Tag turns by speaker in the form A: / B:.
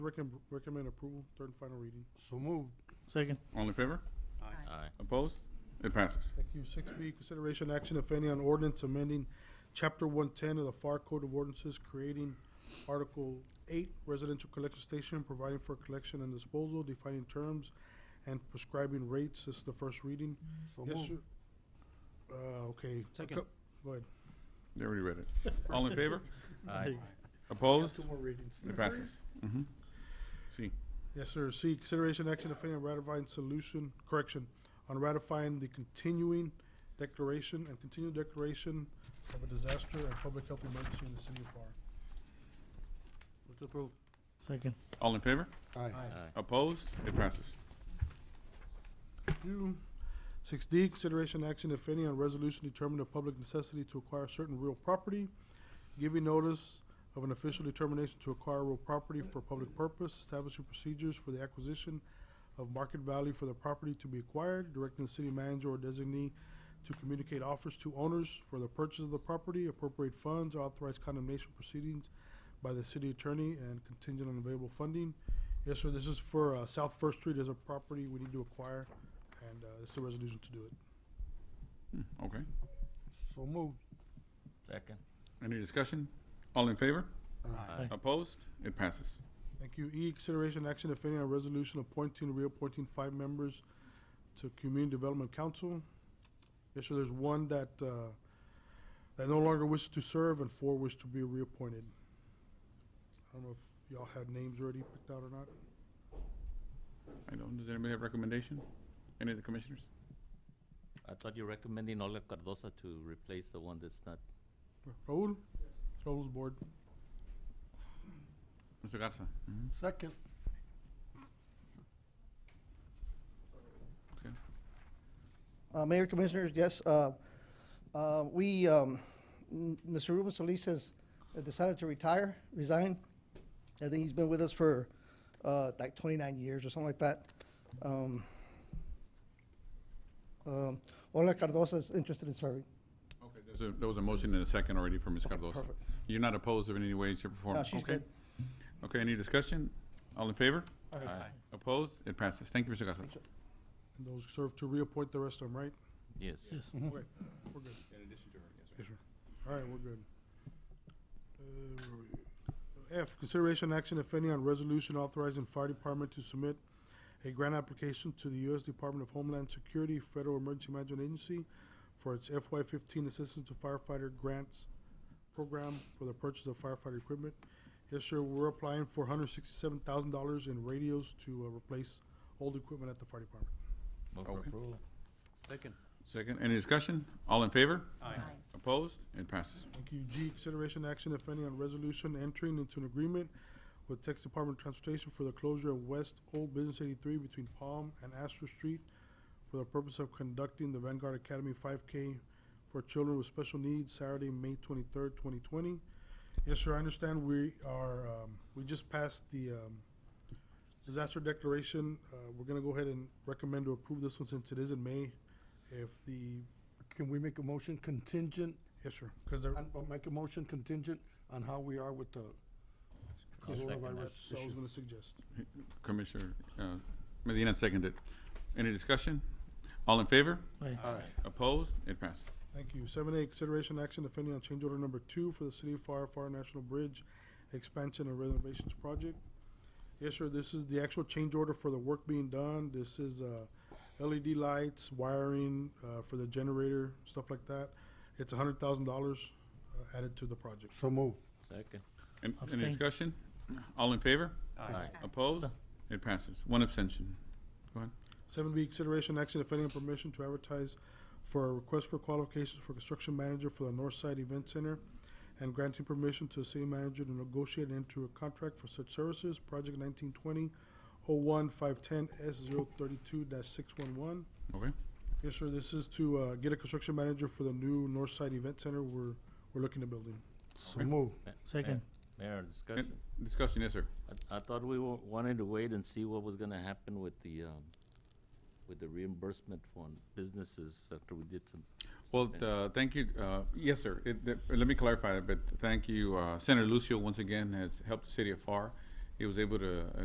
A: Recommend, recommend approval, third and final reading.
B: So moved.
C: Second.
D: All in favor?
E: Aye.
D: Opposed? It passes.
A: Thank you. Six B, consideration action, if any, on ordinance amending chapter one ten of the FAR Code of Ordinances, creating Article eight, residential collection station, providing for collection and disposal, defining terms, and prescribing rates. This is the first reading.
B: So
A: Yes,
B: moved.
A: sir. Uh, okay.
B: Second.
A: Go ahead.
D: They already read it. All in favor?
E: Aye.
D: Opposed?
A: Two more readings.
D: It passes. Mhm. See,
A: Yes, sir. C, consideration action, if any, on ratifying solution, correction, on ratifying the continuing declaration and continued declaration of a disaster and public health emergency in the city of FAR.
B: Move to approve.
C: Second.
D: all in favor?
B: Aye.
E: Aye.
D: Opposed? It passes.
A: Q. Six D, consideration action, if any, on resolution determining a public necessity to acquire certain real property, giving notice of an official determination to acquire real property for public purpose, establishing procedures for the acquisition of market value for the property to be acquired, directing the city manager or designee to communicate offers to owners for the purchase of the property, appropriate funds, authorize condemnation proceedings by the city attorney and contingent on available funding. Yes, sir, this is for, uh, South First Street as a property we need to acquire, and, uh, it's a resolution to do it.
D: Hmm, Okay.
B: So moved.
E: Second.
D: Any discussion? All in favor?
E: Aye.
D: Opposed? It passes.
A: Thank you. E, consideration action, if any, on resolution appointing, reappointing five members to Community Development Council. Yes, sir, there's one that, uh, that no longer wishes to serve and four wish to be reappointed. I don't know if y'all had names already picked out or not.
D: I don't, does anybody have recommendation? Any of the commissioners?
E: I thought you were recommending Olga Cardosa to replace the one that's not.
A: Raul? Raul's board.
D: Mr. Garza? Mhm.
B: Second.
F: Uh, Mayor Commissioners, yes, uh, uh, we, um, m- Mr. Ruben Solis has decided to retire, resign. I think he's been with us for uh, like 29 years or something like that. Um, um, Ola Cardosa is interested in serving.
D: Okay, there's a- there was a motion and a second already for Ms. Cardosa.
F: perfect.
D: You're not opposed in any way, shape, or form?
F: No, Uh, she's
D: Okay.
F: good.
D: Okay, any discussion? All in favor?
E: Aye.
D: Opposed? It passes. Thank you, Mr. Garza.
A: And those serve to reappoint the rest of them, right?
E: Yes.
C: Yes.
A: Okay, we're good.
D: In addition to her, yes.
A: Yes, sir. All right, we're good. Uh, where we? F, consideration action, if any, on resolution authorizing fire department to submit a grant application to the U.S. Department of Homeland Security Federal Emergency Management Agency for its FY fifteen Assistance to Firefighter Grants Program for the purchase of firefighter equipment. Yes, sir, we're applying for hundred sixty-seven thousand dollars in radios to uh, replace old equipment at the fire department.
E: Move for
D: Okay.
E: approval.
B: Second.
D: Second, any discussion? All in favor?
B: Aye.
D: Opposed? It passes.
A: Thank you. G, consideration action, if any, on resolution entering into an agreement with Texas Department of Transportation for the closure of West Old Business eighty-three between Palm and Astor Street for the purpose of conducting the Vanguard Academy five K for children with special needs Saturday, May twenty-third, twenty twenty. Yes, sir, I understand we are, um, we just passed the, um, disaster declaration. Uh, we're gonna go ahead and recommend to approve this one since it is in May. If the,
B: Can we make a motion contingent,
A: yes, sir, because they're,
B: and uh, make a motion contingent on how we are with the
E: I'll second that.
B: coronavirus
A: that's what I was
B: issue?
A: gonna suggest.
D: Commissioner uh, Medina seconded. Any discussion? All in favor?
C: Aye.
D: Opposed? It passes.
A: Thank you. Seven A, consideration action, if any, on change order number two for the City of Far Far National Bridge Expansion and Renovations Project. Yes, sir, this is the actual change order for the work being done. This is, uh, LED lights, wiring, uh, for the generator, stuff like that. It's a hundred thousand dollars uh, added to the project.
B: So moved.
E: Second.
D: An- Any
C: Abstain.
D: discussion? All in favor?
E: Aye.
D: Opposed? It passes. One abstention.
A: Seven B, consideration action, if any, on permission to advertise for a request for qualifications for construction manager for the North Side Event Center and granting permission to the city manager to negotiate and enter a contract for such services, project nineteen twenty oh one five ten S zero thirty-two dash six one one.
D: Okay,
A: Yes, sir, this is to, uh, get a construction manager for the new North Side Event Center we're, we're looking at building.
B: So moved.
E: Ma-
C: Second.
E: Ma- Mayor, discussion.
D: discussion, yes, sir.
E: I, I thought we wa- wanted to wait and see what was gonna happen with the, um, with the reimbursement for businesses after we did some.
D: Well, uh, thank you, uh, yes, sir. It- that- Let me clarify that, but thank you. uh, Senator Lucio, once again, has helped the city of FAR he was able to uh,